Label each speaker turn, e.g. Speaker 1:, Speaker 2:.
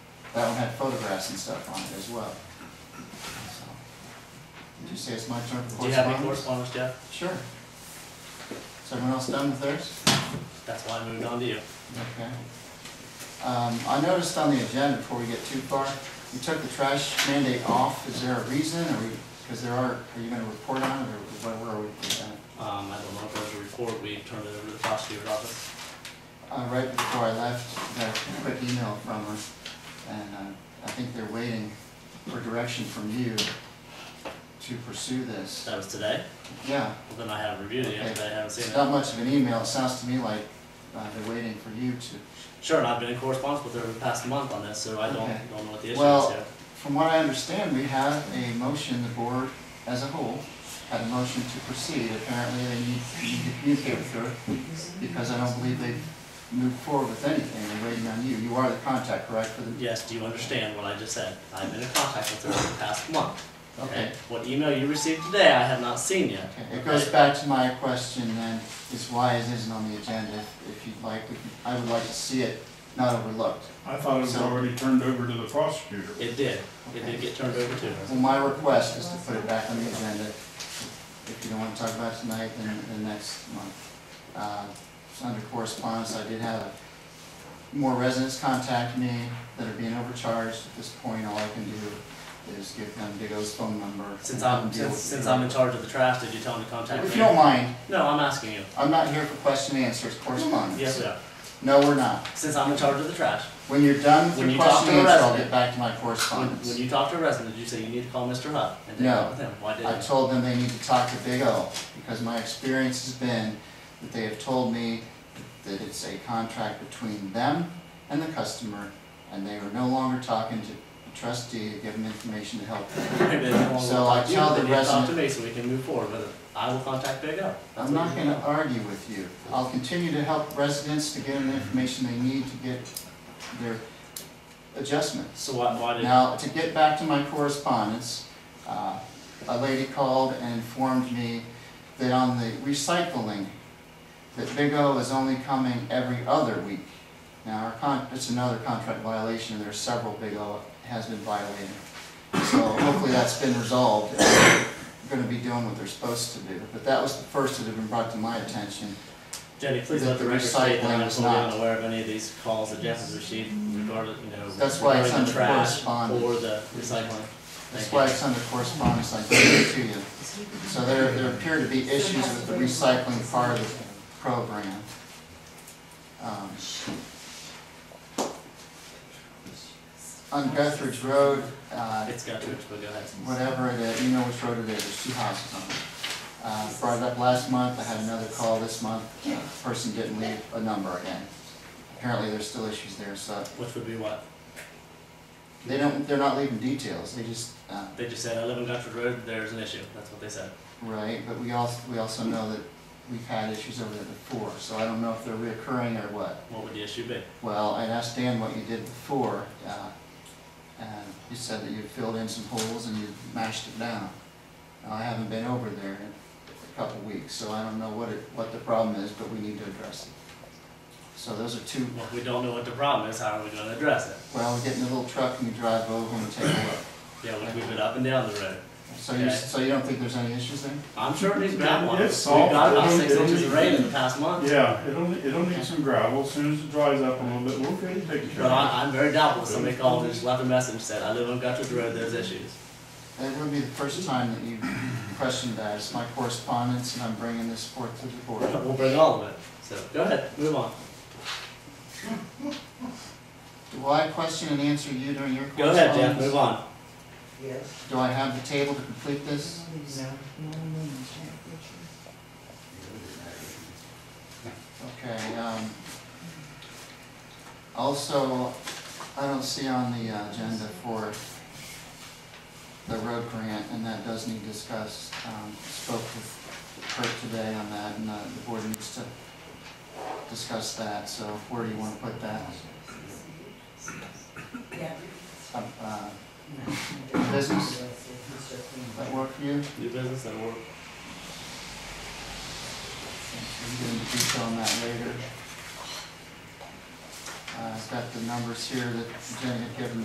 Speaker 1: That one had photographs and stuff on it as well. So, Did you say it's my turn for
Speaker 2: Do you have any
Speaker 1: correspondence?
Speaker 2: correspondence, Jeff?
Speaker 1: Sure. Is everyone else done with theirs?
Speaker 2: That's why I moved on to you.
Speaker 1: Okay. Um, I noticed on the agenda, before we get too far, you took the trash mandate off. Is there a reason, or, because there are, are you gonna report on it, or what, where are we with that?
Speaker 2: Um, I don't know if there's a report, we turned it over to the prosecutor's office.
Speaker 1: Uh, right before I left, got a quick email from her, and, uh, I think they're waiting for direction from you to pursue this.
Speaker 2: That was today, Um,
Speaker 1: Yeah,
Speaker 2: well then I haven't reviewed it yet, but I haven't
Speaker 1: it's
Speaker 2: seen it.
Speaker 1: not much of an email. It sounds to me like, uh, they're waiting for you to
Speaker 2: Sure, and I've been in correspondence with her the past month on this, so I don't,
Speaker 1: Okay.
Speaker 2: don't know what the issue is
Speaker 1: Well-
Speaker 2: yet.
Speaker 1: From what I understand, we have a motion, the board as a whole had a motion to proceed. Apparently, they need you need to communicate with her because I don't believe they've moved forward with anything. They're waiting on you. You are the contact, correct, for the,
Speaker 2: Yes, do you understand what I just said? I've been in contact with her the past month.
Speaker 1: okay.
Speaker 2: What email you received today, I have not seen yet.
Speaker 1: Okay, It goes back to my question then, is why it isn't on the agenda. If- If you'd like, we could- I would like to see it not overlooked.
Speaker 3: I thought it was
Speaker 1: So-
Speaker 3: already turned over to the prosecutor.
Speaker 2: It did, it did get turned over to her.
Speaker 1: Well, my request is to put it back on the agenda. If you don't want to talk about it tonight, then, then next month. Uh, so Under correspondence, I did have more residents contact me that are being overcharged. At this point, all I can do is give them Digo's phone number. and
Speaker 2: Since
Speaker 1: have
Speaker 2: I'm,
Speaker 1: them deal
Speaker 2: since,
Speaker 1: with it.
Speaker 2: since I'm in charge of the trash, did you tell him to contact me?
Speaker 1: If you don't mind,
Speaker 2: No, I'm asking you.
Speaker 1: I'm not here for question and answers, correspondence.
Speaker 2: Yes, we are.
Speaker 1: No, we're not.
Speaker 2: Since I'm in charge of the trash,
Speaker 1: When you're done with
Speaker 2: When
Speaker 1: your
Speaker 2: you talk
Speaker 1: question
Speaker 2: to
Speaker 1: and
Speaker 2: a
Speaker 1: answer, I'll get
Speaker 2: resident-
Speaker 1: back to my
Speaker 2: when,
Speaker 1: correspondence.
Speaker 2: when you talk to a resident, did you say you need to call Mr. Hutt? And then
Speaker 1: No.
Speaker 2: talk with him? Why didn't
Speaker 1: I
Speaker 2: you?
Speaker 1: told them they need to talk to Big O, because my experience has been that they have told me that it's a contract between them and the customer, and they are no longer talking to the trustee to give them information to help them.
Speaker 2: Maybe they don't want to
Speaker 1: So
Speaker 2: talk
Speaker 1: I
Speaker 2: to you,
Speaker 1: tell
Speaker 2: but
Speaker 1: the
Speaker 2: they need to Talk to
Speaker 1: resident-
Speaker 2: me so we can move forward with it. I will contact Big O. That's
Speaker 1: I'm
Speaker 2: what
Speaker 1: not
Speaker 2: you-
Speaker 1: gonna argue with you. I'll continue to help residents to get them the information they need to get their adjustments.
Speaker 2: So why, why did,
Speaker 1: Now, to get back to my correspondence, uh, a lady called and informed me that on the recycling, that Big O is only coming every other week. Now, our con, it's another contract violation, and there's several Big O has been violating. So hopefully that's been resolved, and they're gonna be doing what they're supposed to do. But that was the first that had been brought to my attention.
Speaker 2: Jenny, please
Speaker 1: that
Speaker 2: let the
Speaker 1: the
Speaker 2: record state that
Speaker 1: recycling
Speaker 2: I'm
Speaker 1: is
Speaker 2: totally
Speaker 1: not-
Speaker 2: unaware of any of these calls that Jeff has received regarding, you know,
Speaker 1: That's why it's
Speaker 2: regarding the
Speaker 1: under
Speaker 2: trash
Speaker 1: correspondence.
Speaker 2: or the recycling.
Speaker 1: That's
Speaker 2: Thank
Speaker 1: why
Speaker 2: you.
Speaker 1: it's under correspondence, I gave it to you. So there, there appear to be issues with the recycling part of the program. Um, On Guthridge Road, uh,
Speaker 2: It's got to, it, but go ahead.
Speaker 1: whatever it is, you know which road it is, there's two houses on it. Uh, Brought it up last month, I had another call this month, uh, person didn't leave a number again. Apparently, there's still issues there, so
Speaker 2: Which would be what?
Speaker 1: they don't, they're not leaving details, they just, uh,
Speaker 2: They just said, I live on Guntford Road, there's an issue. That's what they said.
Speaker 1: Right, but we also, we also know that we've had issues over there before, so I don't know if they're reoccurring or what.
Speaker 2: What would the issue be?
Speaker 1: Well, I'd asked Dan what you did before, uh, and you said that you filled in some holes and you mashed it down. Now, I haven't been over there in a couple of weeks, so I don't know what it, what the problem is, but we need to address it. So those are two,
Speaker 2: Well, if we don't know what the problem is, how are we gonna address it?
Speaker 1: well, we get in the little truck and we drive over and we take a look.
Speaker 2: Yeah, we move it up and down the road.
Speaker 1: So you, so you don't think there's any issues there?
Speaker 2: I'm sure it needs gravel. We've
Speaker 3: It's soft.
Speaker 2: got about
Speaker 3: It'll-
Speaker 2: six
Speaker 3: it'll
Speaker 2: inches
Speaker 3: need-
Speaker 2: of rain in the past month,
Speaker 3: Yeah, it'll, it'll need some gravel, as soon as it dries up a little bit, we'll get it taken care
Speaker 2: but
Speaker 3: of.
Speaker 2: I, I'm very doubtful. Somebody called and just left a message and said, I live on Guntford Road, there's issues.
Speaker 1: That would be the first time that you questioned that. It's my correspondence, and I'm bringing this forth to the board.
Speaker 2: We'll bring all of it. So, go ahead, move on.
Speaker 1: Do I question and answer you during your
Speaker 2: Go ahead,
Speaker 1: correspondence?
Speaker 2: Jeff, move on.
Speaker 4: Yes.
Speaker 1: Do I have the table to complete this? Okay, um, also, I don't see on the agenda for the road grant, and that does need discussed. Um, spoke with Kurt today on that, and uh, the board needs to discuss that, so where do you wanna put that?
Speaker 4: Yeah.
Speaker 1: Uh, uh, Business? Does that work for you?
Speaker 2: New business and work.
Speaker 1: We can get into detail on that later. Uh, I've got the numbers here that Jenny had given